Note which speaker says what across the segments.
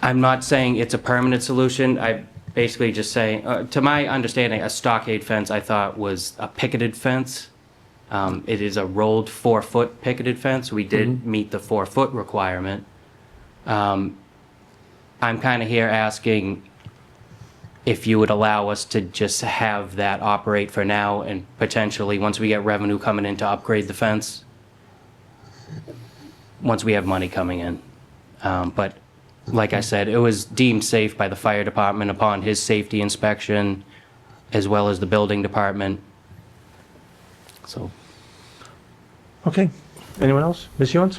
Speaker 1: I'm not saying it's a permanent solution. I basically just saying, uh, to my understanding, a stockade fence I thought was a picketed fence. Um, it is a rolled four foot picketed fence. We did meet the four foot requirement. Um, I'm kind of here asking if you would allow us to just have that operate for now and potentially, once we get revenue coming in to upgrade the fence, once we have money coming in. Um, but like I said, it was deemed safe by the fire department upon his safety inspection, as well as the building department. So,
Speaker 2: Okay. Anyone else? Ms. Yons?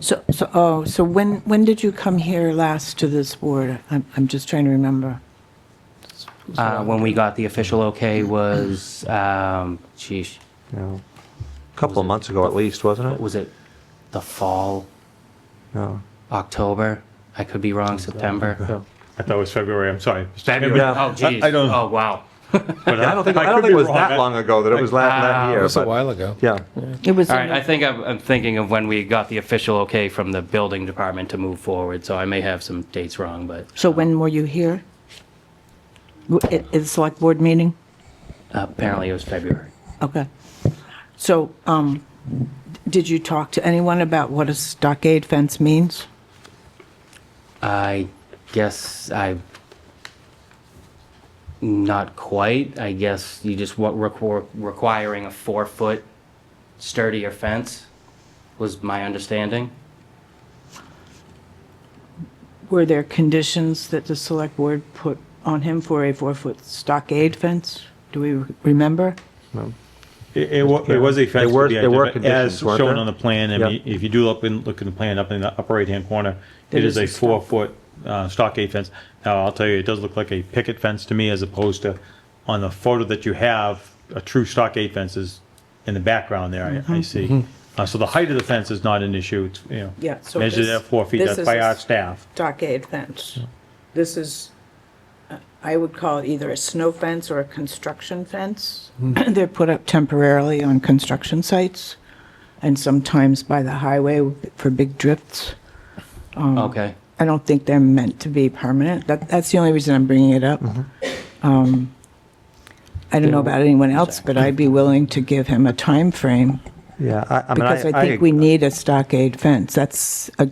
Speaker 3: So, so, oh, so when, when did you come here last to this board? I'm, I'm just trying to remember.
Speaker 1: uh, when we got the official okay was, um, sheesh,
Speaker 2: No. A couple of months ago at least, wasn't
Speaker 1: what
Speaker 2: it?
Speaker 1: was it? The fall,
Speaker 2: No.
Speaker 1: October? I could be wrong, September.
Speaker 2: No.
Speaker 4: I thought it was February, I'm sorry. Mr.
Speaker 1: February,
Speaker 4: Chairman,
Speaker 1: oh geez,
Speaker 4: I- I don't-
Speaker 1: oh wow.
Speaker 4: but
Speaker 2: I don't think, I
Speaker 4: could
Speaker 2: don't think
Speaker 4: be
Speaker 2: it was
Speaker 4: wrong.
Speaker 2: that
Speaker 4: I-
Speaker 2: long ago that it was la-
Speaker 1: Ah,
Speaker 2: that
Speaker 1: it
Speaker 2: year,
Speaker 5: That's a
Speaker 2: but,
Speaker 5: while ago.
Speaker 2: yeah.
Speaker 3: It was,
Speaker 1: All right,
Speaker 3: in-
Speaker 1: I think I'm, I'm thinking of when we got the official okay from the building department to move forward, so I may have some dates wrong, but
Speaker 3: so when were you here? W- At at the select board meeting?
Speaker 1: apparently it was February.
Speaker 3: Okay. So, um, did you talk to anyone about what a stockade fence means?
Speaker 1: I guess I. Not quite. I guess you just what requ- requiring a four foot sturdier fence was my understanding.
Speaker 3: Were there conditions that the select board put on him for a four-foot stockade fence? Do we re- remember?
Speaker 4: It, it wa- it was a fence.
Speaker 2: There were-
Speaker 4: to be
Speaker 2: there were
Speaker 4: identified, As
Speaker 2: conditions, weren't
Speaker 4: shown
Speaker 2: there?
Speaker 4: on the plan, I
Speaker 2: Yeah.
Speaker 4: mean, if you do look in, look in the plan up in the upper right-hand corner, it
Speaker 3: There is
Speaker 4: is a
Speaker 3: a stock-
Speaker 4: four-foot uh, stockade fence. Now, I'll tell you, it does look like a picket fence to me as opposed to, on the photo that you have, a true stockade fence is in the background there,
Speaker 2: Mm-hmm.
Speaker 4: I, I see. Uh, so the height of the fence is not an issue, it's, you know.
Speaker 3: Yeah, so
Speaker 4: Measured
Speaker 3: this-
Speaker 4: at four feet,
Speaker 3: this
Speaker 4: that's
Speaker 3: is
Speaker 4: by
Speaker 3: a
Speaker 4: our
Speaker 3: s-
Speaker 4: staff.
Speaker 3: stockade fence. This is, uh, I would call it either a snow fence or a construction fence.
Speaker 1: Hmm.
Speaker 3: They're put up temporarily on construction sites and sometimes by the highway for big drifts. Hmm.
Speaker 1: Okay.
Speaker 3: I don't think they're meant to be permanent. That, that's the only reason I'm bringing it up.
Speaker 1: Mm-hmm.
Speaker 3: Um, I don't know about anyone else, but I'd be willing to give him a time frame
Speaker 2: Yeah, I, I mean, I.
Speaker 3: because I think we need a stockade fence. That's a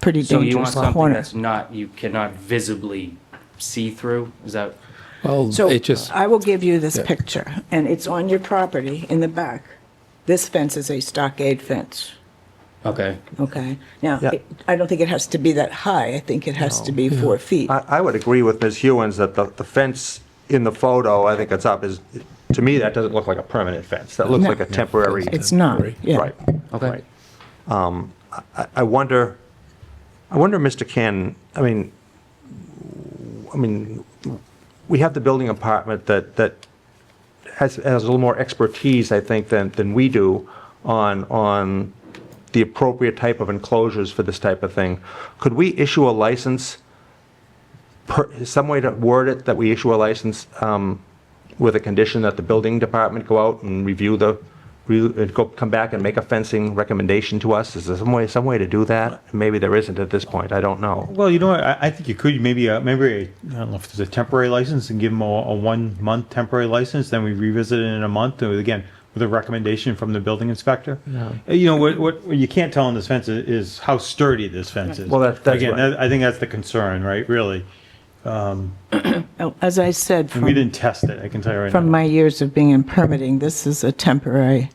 Speaker 3: pretty
Speaker 1: So you want
Speaker 3: dangerous
Speaker 1: something
Speaker 3: corner.
Speaker 1: that's not, you cannot visibly see through? Is that?
Speaker 5: Well,
Speaker 3: So
Speaker 5: it just,
Speaker 3: I will give you this
Speaker 5: Yeah.
Speaker 3: picture, and it's on your property in the back. This fence is a stockade fence,
Speaker 1: Okay.
Speaker 3: okay? Now,
Speaker 2: Yeah.
Speaker 3: it- I don't think it has to be that high. I think it has to be four feet.
Speaker 2: I, I would agree with Ms. Hewens that the, the fence in the photo, I think it's up, is, to me, that doesn't look like a permanent fence. That looks
Speaker 3: No.
Speaker 2: like a temporary.
Speaker 3: It's not, yeah.
Speaker 2: Right. Um,
Speaker 1: Okay.
Speaker 2: I- I wonder, I wonder, Mr. Cannon, I mean, I mean, we have the building department that, that has, has a little more expertise, I think, than, than we do on, on the appropriate type of enclosures for this type of thing. Could we issue a license, per, some way to word it, that we issue a license, um, with a condition that the building department go out and review the, re- uh, go, come back and make a fencing recommendation to us? Is there some way, some way to do that? Maybe there isn't at this point, I don't know.
Speaker 4: Well, you know, what, I, I think you could maybe uh, maybe a, I don't know if there's a temporary license and give them a, a one month temporary license. Then we revisit it in a month, and again with a recommendation from the building inspector. Uh, You know what, what? what you can't tell on this fence is, is how sturdy this fence is.
Speaker 2: Well, that- that's
Speaker 4: again,
Speaker 2: right.
Speaker 4: that, I think that's the concern, right? Really,
Speaker 3: Oh, As I said,
Speaker 4: and we
Speaker 3: from,
Speaker 4: didn't test it. I can tell you right
Speaker 3: from
Speaker 4: now.
Speaker 3: my years of being in permitting, this is a temporary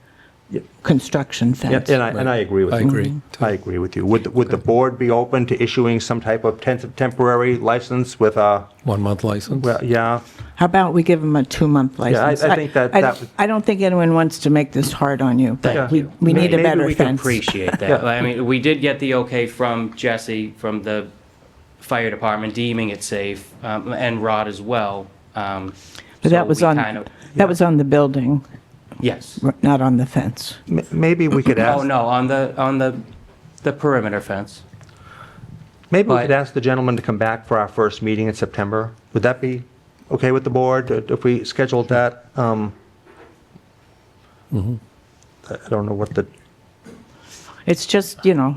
Speaker 3: construction
Speaker 2: Yeah,
Speaker 3: fence.
Speaker 2: And I, and I agree with you.
Speaker 5: I agree.
Speaker 2: I agree with you. Would, the- would the board be open to issuing some type of ten- temporary license with a,
Speaker 5: one-month license.
Speaker 2: well, yeah?
Speaker 3: How about we give him a two-month
Speaker 2: I- I
Speaker 3: license?
Speaker 2: think that-
Speaker 3: I-
Speaker 2: that would-
Speaker 3: I don't think anyone wants to make this hard on you, but
Speaker 1: Thank
Speaker 3: we,
Speaker 1: you.
Speaker 3: we need a
Speaker 2: Maybe
Speaker 3: better
Speaker 1: we can
Speaker 3: fence.
Speaker 1: appreciate that. I mean, we did get the okay from Jesse, from the fire department deeming it safe, um, and Rod as well. um, so
Speaker 3: But that was
Speaker 1: we
Speaker 3: on,
Speaker 1: kind of-
Speaker 3: that was on the building,
Speaker 1: Yes.
Speaker 3: r- not on the fence.
Speaker 2: M- Maybe we could
Speaker 1: Oh,
Speaker 2: ask,
Speaker 1: no, on the, on the, the perimeter fence.
Speaker 2: maybe we could
Speaker 1: but-
Speaker 2: ask the gentleman to come back for our first meeting in September. Would that be okay with the board uh, if we scheduled that? Um,
Speaker 5: Mm-hmm.
Speaker 2: I I don't know what the
Speaker 3: It's just, you know,